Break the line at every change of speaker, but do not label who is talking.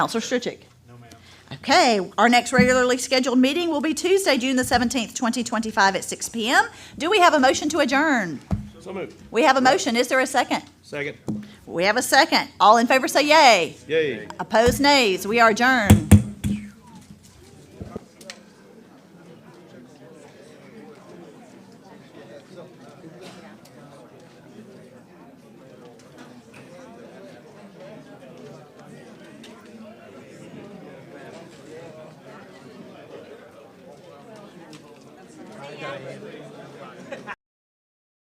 Counselor Stritchick? No, ma'am. Okay, our next regularly scheduled meeting will be Tuesday, June the 17th, 2025 at 6 PM. Do we have a motion to adjourn?
So moved.
We have a motion. Is there a second?
Second.
We have a second. All in favor say yay.
Yay.
Opposed nays. We are adjourned.